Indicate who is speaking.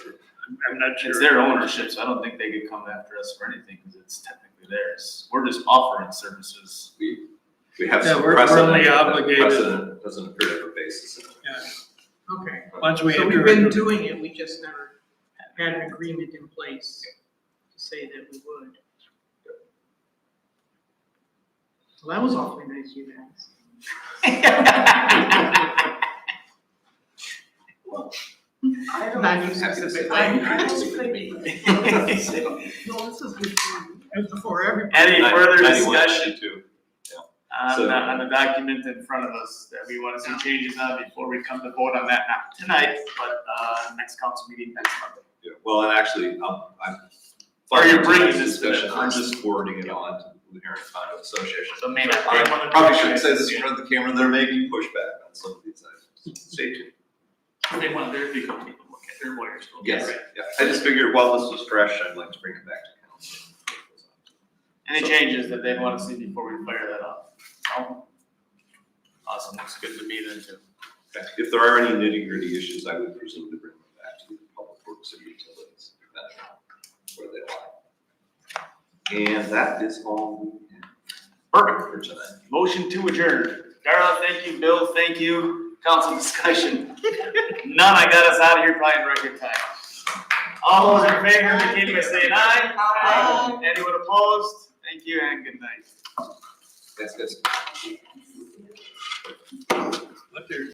Speaker 1: not sure.
Speaker 2: It's their ownership, so I don't think they could come after us for anything, because it's technically theirs. We're just offering services.
Speaker 3: We, we have
Speaker 1: Yeah,
Speaker 3: some
Speaker 1: we're- we're
Speaker 3: precedent.
Speaker 1: only
Speaker 3: but
Speaker 1: obligated-
Speaker 3: Precedent doesn't appear to have a basis. in it.
Speaker 4: Okay,
Speaker 1: Once we
Speaker 4: so we've
Speaker 1: enter
Speaker 4: been
Speaker 1: into,
Speaker 4: doing it, we just never had an agreement in place to say that we would. Well, that was awfully nice, you guys.
Speaker 5: I don't,
Speaker 4: Not
Speaker 3: Happy
Speaker 4: you
Speaker 3: to say
Speaker 4: specifically.
Speaker 5: I,
Speaker 3: that.
Speaker 5: I just could be,
Speaker 2: Any
Speaker 4: No, this is good for you. It's for everybody.
Speaker 2: further
Speaker 3: 91,
Speaker 2: discussion
Speaker 3: 92.
Speaker 2: on,
Speaker 3: So-
Speaker 2: the- on the document in front of us that we want to see changes on before we come to vote on that, not tonight, but, uh, next council meeting next month.
Speaker 3: Yeah, Well, and actually, um, I'm.
Speaker 2: Or you're bringing this to them
Speaker 3: discussion, I'm
Speaker 2: first.
Speaker 3: just forwarding it on to the Luzerne Condo Association.
Speaker 2: So maybe.
Speaker 3: I Probably shouldn't say this in front of the camera, there may be pushback on some of these items. Stay tuned.
Speaker 2: They want their legal people to look at their lawyers. will look at
Speaker 3: Yes,
Speaker 2: it.
Speaker 3: yeah, I just figured while this was fresh, I'd like to bring it back to council.
Speaker 2: Any changes that they want to see before we fire that up? No? Awesome, looks good to me then too.
Speaker 3: If there are any nitty gritty issues, I would presume to bring them back to the public works and utilities, depending on where they lie. And that is all we have. Perfect. For tonight.
Speaker 2: Motion to adjourn. Darla, thank you. Bill, thank you. Council discussion. None. I got us out of here probably in record time. All those in favor, indicate by saying aye.
Speaker 5: Aye.
Speaker 2: Anyone opposed? Thank you and good night.
Speaker 3: That's, that's.
Speaker 1: Look, there-